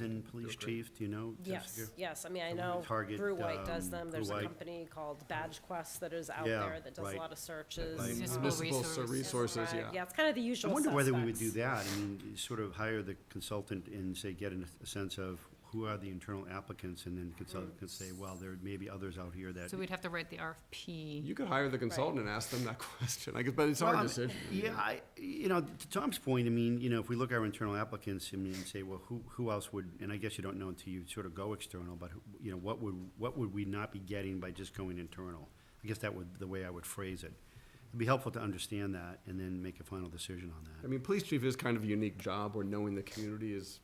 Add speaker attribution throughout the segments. Speaker 1: And police chief, do you know? Jeff
Speaker 2: Yes,
Speaker 1: Secure?
Speaker 2: yes, I mean, I
Speaker 1: So we
Speaker 2: know
Speaker 1: target,
Speaker 2: Brew White does
Speaker 1: um,
Speaker 2: them, there's
Speaker 1: Brew
Speaker 2: a
Speaker 1: White.
Speaker 2: company called Badge Quest that is out
Speaker 1: Yeah,
Speaker 2: there that does a
Speaker 1: right.
Speaker 2: lot of
Speaker 1: Like-
Speaker 2: searches.
Speaker 3: Municipal
Speaker 2: um,
Speaker 3: resources.
Speaker 2: right,
Speaker 3: resources,
Speaker 2: Yeah, it's kind of the
Speaker 1: I
Speaker 2: usual
Speaker 1: wonder whether we would do
Speaker 2: suspects.
Speaker 1: that, I mean, sort of hire the consultant and say, get an- a sense of who are the internal applicants, and then consultant can say, well, there may be others out here that.
Speaker 3: So we'd have to write the
Speaker 4: You
Speaker 3: RFP.
Speaker 4: could hire the consultant and ask them that question, I guess, but it's
Speaker 1: Well,
Speaker 4: our
Speaker 1: I'm-
Speaker 4: decision.
Speaker 1: Yeah, I, you know, to Tom's point, I mean, you know, if we look at our internal applicants, I mean, and say, well, who, who else would, and I guess you don't know until you sort of go external, but, who- you know, what would, what would we not be getting by just going internal? I guess that would, the way I would phrase it. It'd be helpful to understand that and then make a final decision on
Speaker 4: I
Speaker 1: that.
Speaker 4: mean, police chief is kind of a unique job where knowing the community is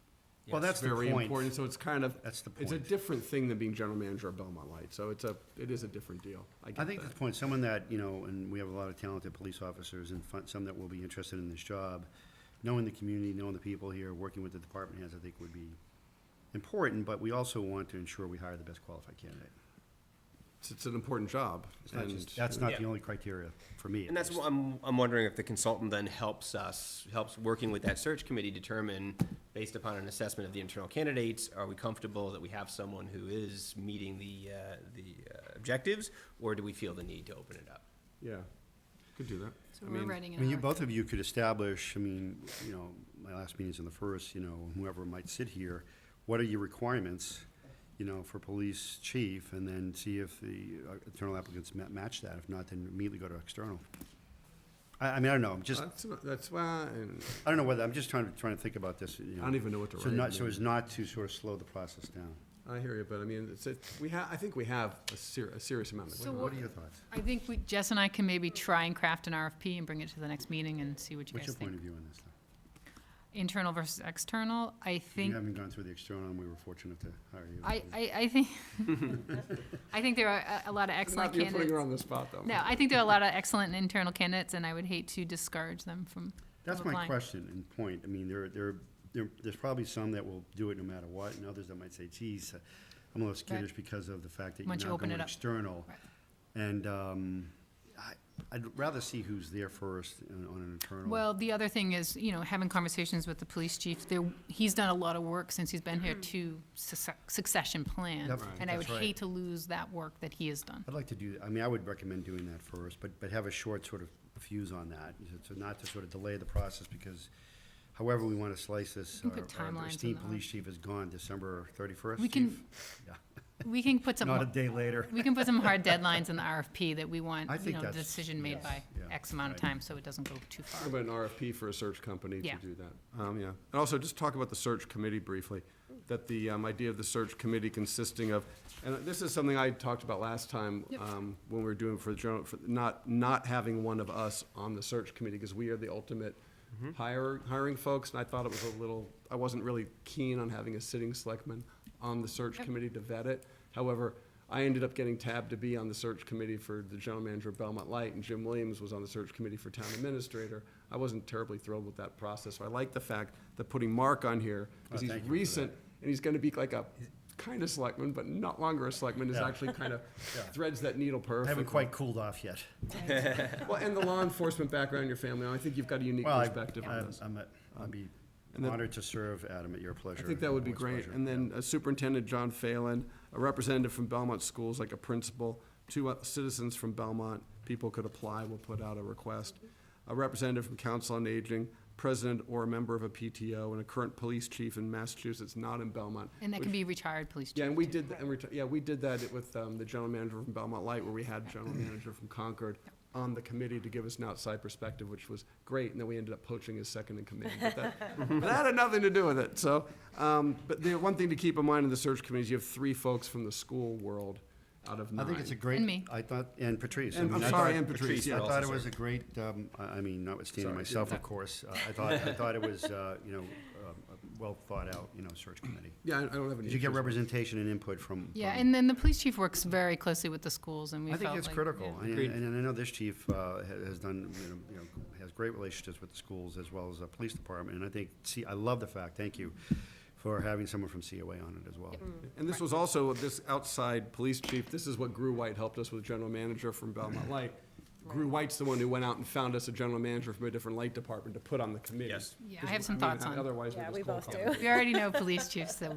Speaker 1: Well, that's the
Speaker 4: very
Speaker 1: point.
Speaker 4: important, so it's kind of,
Speaker 1: That's the
Speaker 4: it's a
Speaker 1: point.
Speaker 4: different thing than being general manager of Belmont Light, so it's a, it is a different deal. I
Speaker 1: I
Speaker 4: get
Speaker 1: think
Speaker 4: that.
Speaker 1: that's the point, someone that, you know, and we have a lot of talented police officers and fun- some that will be interested in this job, knowing the community, knowing the people here, working with the department heads, I think would be important, but we also want to ensure we hire the best qualified candidate.
Speaker 4: It's, it's an important job.
Speaker 1: It's not
Speaker 4: and-
Speaker 1: just- That's not the
Speaker 5: Yeah.
Speaker 1: only criteria for me. at
Speaker 5: And that's
Speaker 1: least.
Speaker 5: what I'm, I'm wondering if the consultant then helps us, helps working with that search committee determine, based upon an assessment of the internal candidates, are we comfortable that we have someone who is meeting the, uh, the uh, objectives? Or do we feel the need to open it up?
Speaker 4: Yeah, could do that.
Speaker 3: So
Speaker 4: I
Speaker 3: we're
Speaker 4: mean,
Speaker 3: writing
Speaker 1: I
Speaker 3: an
Speaker 1: mean, you,
Speaker 3: RFP.
Speaker 1: both of you could establish, I mean, you know, my last meeting's on the first, you know, whoever might sit here, what are your requirements, you know, for police chief, and then see if the uh, internal applicants ma- match that, if not, then immediately go to external. I, I mean, I don't know, I'm just,
Speaker 4: uh, That's, not- that's why, and
Speaker 1: I don't know whether, I'm just trying to, trying to think about this, you know.
Speaker 4: I don't even know what to
Speaker 1: So
Speaker 4: write.
Speaker 1: not,
Speaker 4: I
Speaker 1: so
Speaker 4: mean.
Speaker 1: as not to sort of slow the process down.
Speaker 4: I hear you, but I mean, it's, it, we have, I think we have a ser- a serious amendment.
Speaker 3: So
Speaker 1: What
Speaker 3: what-
Speaker 1: are your thoughts?
Speaker 3: I think we, Jess and I can maybe try and craft an RFP and bring it to the next meeting and see what you
Speaker 1: What's
Speaker 3: guys
Speaker 1: your point of
Speaker 3: think.
Speaker 1: view on this? though?
Speaker 3: Internal versus external, I
Speaker 1: You
Speaker 3: think,
Speaker 1: haven't gone through the external, and we were fortunate to hire you.
Speaker 3: I, I, I think, I think there are a, a lot of excellent
Speaker 4: Not that you're putting her
Speaker 3: candidates.
Speaker 4: on the spot, though.
Speaker 3: No, I think there are a lot of excellent internal candidates and I would hate to discourage them from,
Speaker 1: That's
Speaker 3: of
Speaker 1: my
Speaker 3: applying.
Speaker 1: question and point. I mean, there, there, there, there's probably some that will do it no matter what, and others that might say, geez, uh, I'm a little skittish because of the fact that
Speaker 3: Once
Speaker 1: you're
Speaker 3: you
Speaker 1: not
Speaker 3: open
Speaker 1: going
Speaker 3: it up.
Speaker 1: external.
Speaker 3: Right.
Speaker 1: And, um, I, I'd rather see who's there first on on an internal.
Speaker 3: Well, the other thing is, you know, having conversations with the police chief, there, he's done a lot of work since he's been here
Speaker 4: Mm-hmm.
Speaker 3: to succe- succession plan.
Speaker 1: Yep,
Speaker 3: And I would
Speaker 1: that's right.
Speaker 3: hate to lose that work that he has done.
Speaker 1: I'd like to do, I mean, I would recommend doing that first, but, but have a short sort of fuse on that, so not to sort of delay the process, because however we want to slice this,
Speaker 3: We can
Speaker 1: our-
Speaker 3: put timelines
Speaker 1: our
Speaker 3: on
Speaker 1: esteemed
Speaker 3: that.
Speaker 1: police chief is gone December thirty-first,
Speaker 3: We can-
Speaker 1: chief? Yeah,
Speaker 3: We can put
Speaker 1: Not a
Speaker 3: some,
Speaker 1: day later.
Speaker 3: we can put some hard deadlines in the RFP that we want,
Speaker 1: I
Speaker 3: you
Speaker 1: think
Speaker 3: know,
Speaker 1: that's-
Speaker 3: decision made
Speaker 1: yes,
Speaker 3: by
Speaker 1: yeah,
Speaker 3: X amount of
Speaker 1: right.
Speaker 3: time, so it doesn't go too
Speaker 4: How
Speaker 3: far.
Speaker 4: about an RFP for a search company to
Speaker 3: Yeah.
Speaker 4: do that? Um, yeah. And also, just talk about the search committee briefly, that the, um, idea of the search committee consisting of, and this is something I talked about last time,
Speaker 3: Yep.
Speaker 4: um, when we were doing for the general, for not, not having one of us on the search committee, because we are the ultimate hire, hiring folks, and I thought it was a little, I wasn't really keen on having a sitting selectman on the search
Speaker 3: Yep.
Speaker 4: committee to vet it. However, I ended up getting tabbed to be on the search committee for the general manager of Belmont Light, and Jim Williams was on the search committee for town administrator. I wasn't terribly thrilled with that process, so I like the fact that putting Mark on here, because
Speaker 1: Oh,
Speaker 4: he's
Speaker 1: thank you for
Speaker 4: recent, and he's gonna be like a kind of selectman, but not longer a selectman, is
Speaker 1: Yeah.
Speaker 4: actually kind of threads that needle
Speaker 1: I
Speaker 4: perfectly.
Speaker 1: haven't quite cooled off yet.
Speaker 4: Well, and the law enforcement background in your family, I think you've got a unique
Speaker 1: Well, I-
Speaker 4: perspective on
Speaker 1: I'm-
Speaker 4: this.
Speaker 1: I'm, at- I'd be
Speaker 4: and then-
Speaker 1: honored to serve, Adam, at your pleasure.
Speaker 4: I think that would be
Speaker 1: Always
Speaker 4: great.
Speaker 1: pleasure.
Speaker 4: And then a Superintendent John Phelan, a representative from Belmont Schools, like a principal, two uh, citizens from Belmont, people could apply, we'll put out a request. A representative from Council on Aging, president or a member of a PTO, and a current police chief in Massachusetts, not in Belmont.
Speaker 3: And that
Speaker 4: Which-
Speaker 3: can be retired police chief.
Speaker 4: Yeah, and we
Speaker 3: too.
Speaker 4: did, and we, yeah, we did that with um, the general manager from Belmont Light, where we had general manager from Concord on the committee to give us an outside perspective, which was great, and then we ended up poaching his second in command. But that, but that had nothing to do with it, so, um, but the one thing to keep in mind in the search committee is you have three folks from the school world out of
Speaker 1: I
Speaker 4: nine.
Speaker 1: think it's a great.
Speaker 3: And me.
Speaker 1: I thought, and Patrice. I
Speaker 4: And-
Speaker 1: mean,
Speaker 4: I'm
Speaker 1: I
Speaker 4: sorry,
Speaker 1: thought-
Speaker 4: and Patrice,
Speaker 5: Patrice
Speaker 4: yeah.
Speaker 5: would
Speaker 1: I
Speaker 5: also
Speaker 1: thought it was
Speaker 5: serve.
Speaker 1: a great, um, I I mean, notwithstanding
Speaker 4: Sorry,
Speaker 1: myself,
Speaker 4: yeah.
Speaker 1: of course, uh, I thought, I thought it was, uh, you know, um, a well thought out, you know, search committee.
Speaker 4: Yeah, I I don't have any.
Speaker 1: Did you get
Speaker 4: issues with it.
Speaker 1: representation and input from?
Speaker 3: Yeah,
Speaker 1: from-
Speaker 3: and then the police chief works very closely with the schools and we
Speaker 1: I think
Speaker 3: felt
Speaker 1: that's
Speaker 3: like-
Speaker 1: critical,
Speaker 3: yeah.
Speaker 1: and,
Speaker 4: Agreed.
Speaker 1: and I know this chief uh, ha- has done, you know- you know, has great relationships with the schools as well as the police department, and I think, see, I love the fact, thank you, for having someone from COA on it as well.
Speaker 4: And this was also, this outside police chief, this is what Grew White helped us with, general manager from Belmont Light. Grew White's the one who went out and found us a general manager from a different light department to put on the committee.
Speaker 5: Yes.
Speaker 3: Yeah, I have some
Speaker 4: Because, mean,
Speaker 3: thoughts on it.
Speaker 4: Otherwise, we
Speaker 2: Yeah,
Speaker 4: just
Speaker 2: we
Speaker 4: cold
Speaker 2: both
Speaker 4: call.
Speaker 2: do.
Speaker 3: We already know police chiefs, so